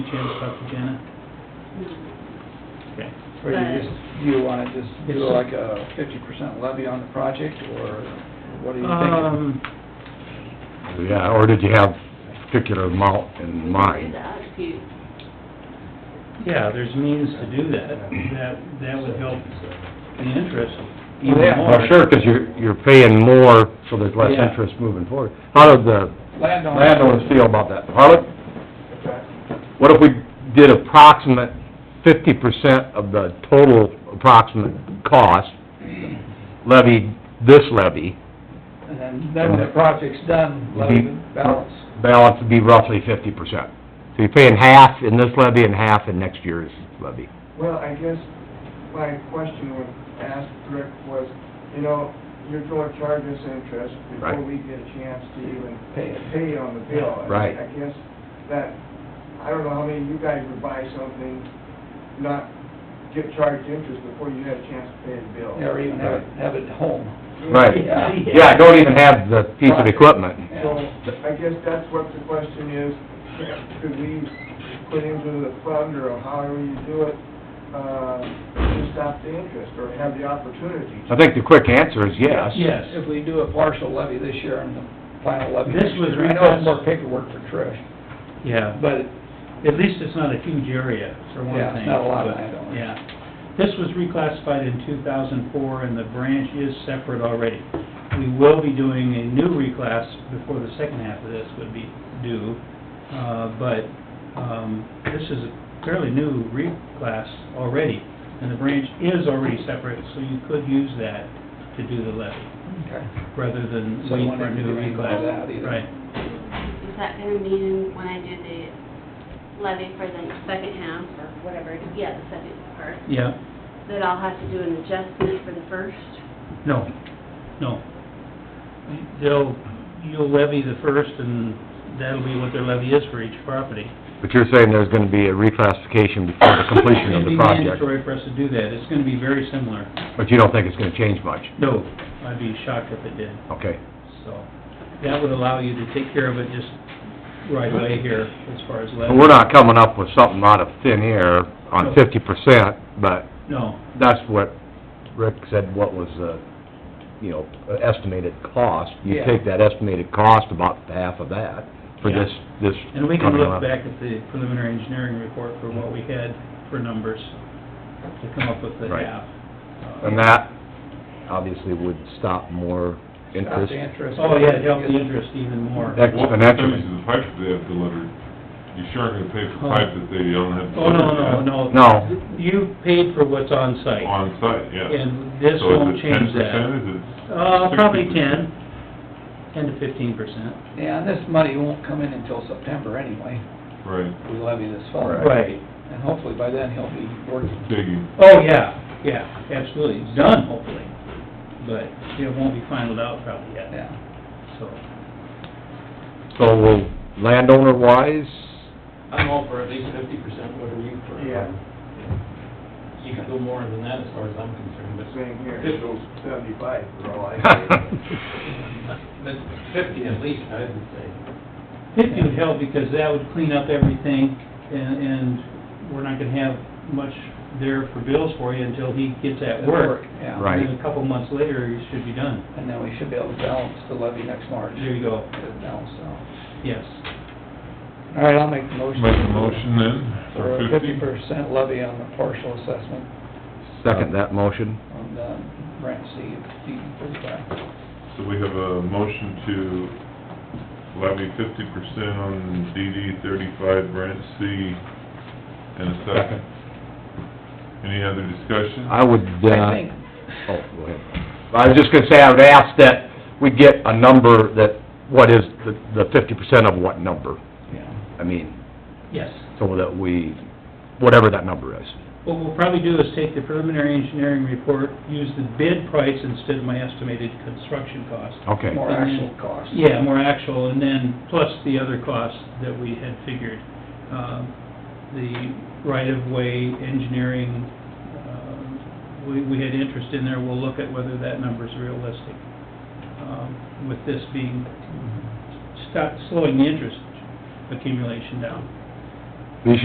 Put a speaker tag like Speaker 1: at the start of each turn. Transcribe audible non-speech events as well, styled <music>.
Speaker 1: chance to talk to Jenna? Okay.
Speaker 2: Or you just, you wanna just do
Speaker 1: It's-
Speaker 2: like a fifty percent levy on the project, or what do you think?
Speaker 1: Um,
Speaker 3: Yeah, or did you have a particular amount in
Speaker 4: Do
Speaker 3: mind?
Speaker 4: that if you,
Speaker 1: yeah, there's means to do that, that, that would help the interest even
Speaker 2: Well, yeah.
Speaker 1: more.
Speaker 3: Well, sure,
Speaker 1: <laughs>
Speaker 3: 'cause you're, you're paying more, so there's less
Speaker 1: Yeah.
Speaker 3: interest moving forward. How did the
Speaker 2: Landowner.
Speaker 3: landowners feel about that? Harlan, what if we did approximate fifty percent of the total approximate cost levied, this levy,
Speaker 2: And then, then when the project's done,
Speaker 3: Mm-hmm.
Speaker 2: levy the balance.
Speaker 3: balance would be roughly fifty percent? So you're paying half in this levy and half in next year's levy.
Speaker 5: Well, I guess my question would ask Rick was, you know, you're gonna charge us interest before
Speaker 3: Right.
Speaker 5: we get a chance to even
Speaker 2: Pay it.
Speaker 5: pay on the bill. I-
Speaker 3: Right.
Speaker 5: I guess that, I don't know how many of you guys would buy something, not get charged interest before you had a chance to pay the bill.
Speaker 2: Or even have it, have it at home.
Speaker 3: Right.
Speaker 2: Yeah.
Speaker 3: Yeah, I don't even have the piece of equipment.
Speaker 5: So I guess that's what the question is, could we put into the fund or however you do it, uh, to stop the interest or have the opportunity to?
Speaker 3: I think the quick answer is yes.
Speaker 1: Yes.
Speaker 2: If we do a partial levy this year and the final levy
Speaker 1: This
Speaker 2: next
Speaker 1: was
Speaker 2: year, I know it's
Speaker 1: request-
Speaker 2: more paperwork for Trish,
Speaker 1: Yeah, but
Speaker 2: but
Speaker 1: at least it's not a huge area, for one
Speaker 2: Yeah,
Speaker 1: thing.
Speaker 2: not a lot of
Speaker 1: but-
Speaker 2: landowners.
Speaker 1: Yeah. This was reclassified in two thousand four, and the branch is separate already. We will be doing a new reclass before the second half of this would be due, uh, but, um, this is a fairly new reclass already, and the branch is already separate, so you could use that to do the levy,
Speaker 2: Okay.
Speaker 1: rather than
Speaker 2: So you
Speaker 1: wait
Speaker 2: won't
Speaker 1: for a
Speaker 2: have to
Speaker 1: new
Speaker 2: do anything
Speaker 1: reclass.
Speaker 2: about that either.
Speaker 1: Right.
Speaker 4: is that gonna mean when I do the levy for the second half or whatever, yeah, the second part,
Speaker 1: Yeah,
Speaker 4: that I'll have to do an adjustment for the first?
Speaker 1: No, no. They'll, you'll levy the first, and that'll be what their levy is for each property.
Speaker 3: But you're saying there's gonna be a reclassification before the completion of
Speaker 1: It'd be
Speaker 3: the project,
Speaker 1: mandatory for us to do that, it's gonna be very similar.
Speaker 3: but you don't think it's gonna change much?
Speaker 1: No, I'd be shocked if it did,
Speaker 3: Okay.
Speaker 1: so. That would allow you to take care of it just right away here, as far as levy.
Speaker 3: But we're not coming up with something out of thin air
Speaker 1: No.
Speaker 3: on fifty percent, but
Speaker 1: No,
Speaker 3: that's what Rick said, what was the, you know, estimated cost. You
Speaker 2: Yeah.
Speaker 3: take that estimated cost, about half of that, for
Speaker 1: Yeah.
Speaker 3: this, this
Speaker 1: and we can
Speaker 3: coming
Speaker 1: look
Speaker 3: up.
Speaker 1: back at the preliminary engineering report for what we had for numbers to come up with the
Speaker 3: Right.
Speaker 1: half. Uh,
Speaker 3: And that, obviously, would stop more
Speaker 2: Stop
Speaker 3: interest.
Speaker 2: the interest.
Speaker 1: Oh, yeah, it'd help the interest even more.
Speaker 3: That-
Speaker 6: What
Speaker 3: Exponentially.
Speaker 6: percentage of the pipe they have delivered? You sure aren't gonna pay for
Speaker 1: Oh.
Speaker 6: pipe that they don't have
Speaker 1: Oh,
Speaker 6: delivered
Speaker 1: no,
Speaker 6: yet?
Speaker 1: no, no.
Speaker 3: No,
Speaker 1: You paid for what's on site,
Speaker 6: On site, yes.
Speaker 1: and this won't change
Speaker 6: So
Speaker 1: that.
Speaker 6: is it ten percent, is it?
Speaker 1: Uh, probably
Speaker 6: 60%?
Speaker 1: ten, ten to fifteen percent.
Speaker 2: Yeah, and this money won't come in until September anyway,
Speaker 6: Right,
Speaker 2: we levy this fall.
Speaker 1: Right.
Speaker 2: And hopefully by then he'll be working.
Speaker 6: digging,
Speaker 1: Oh, yeah, yeah, absolutely, it's done hopefully, but it won't be finalized out probably yet,
Speaker 2: Yeah.
Speaker 1: so.
Speaker 3: so will landowner-wise,
Speaker 7: I'm all for at least fifty percent, what are you for?
Speaker 5: Yeah,
Speaker 7: You could go more than that as far as I'm concerned, but
Speaker 5: same here, it goes seventy-five for all I care.
Speaker 7: but fifty at least, I would say.
Speaker 1: Fifty would help because that would clean up everything, and, and we're not gonna have much there for bills for you until he gets that work.
Speaker 2: Yeah.
Speaker 3: Right.
Speaker 1: And then a couple months later, you should be done.
Speaker 2: And then we should be able to balance the levy next March.
Speaker 1: There you go,
Speaker 2: Get it balanced out.
Speaker 1: yes.
Speaker 2: All right, I'll make the motion.
Speaker 6: make a motion then,
Speaker 2: For a
Speaker 6: for
Speaker 2: fifty
Speaker 6: fifty?
Speaker 2: percent levy on the partial assessment
Speaker 3: second that motion?
Speaker 2: on the rent C, D thirty-five.
Speaker 6: So we have a motion to levy fifty percent on DD thirty-five branch C in a second. Any other discussion?
Speaker 3: I would,
Speaker 2: I
Speaker 3: uh,
Speaker 2: think,
Speaker 3: oh, go ahead. I was just gonna say, I would ask that we get a number that, what is the, the fifty percent of what number?
Speaker 2: yeah,
Speaker 3: I mean,
Speaker 1: Yes.
Speaker 3: so that we, whatever that number is.
Speaker 1: What we'll probably do is take the preliminary engineering report, use the bid price instead of my estimated construction cost.
Speaker 3: Okay.
Speaker 2: more actual cost.
Speaker 1: Yeah, more actual, and then plus the other costs that we had figured. Um, The right-of-way engineering, um, we we had interest in there, we'll look at whether that number's realistic. Um, With this being, stop slowing the interest accumulation down.